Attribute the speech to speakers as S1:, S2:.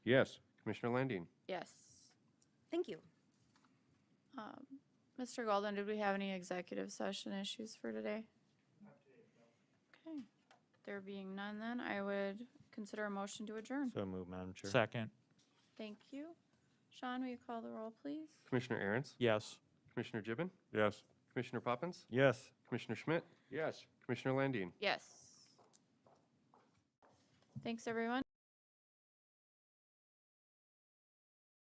S1: Yes. Commissioner Landine?
S2: Yes.
S3: Thank you.
S2: Mr. Golden, did we have any executive session issues for today? Okay. There being none then, I would consider a motion to adjourn.
S4: So moved, Madam Chair.
S5: Second,
S2: Thank you. Sean, will you call the roll, please?
S1: Commissioner Aaron's?
S5: yes.
S1: Commissioner Gibbon?
S4: Yes.
S1: Commissioner Poppins?
S4: Yes.
S1: Commissioner Schmidt? Yes. Commissioner Landine?
S2: Yes. Thanks, everyone.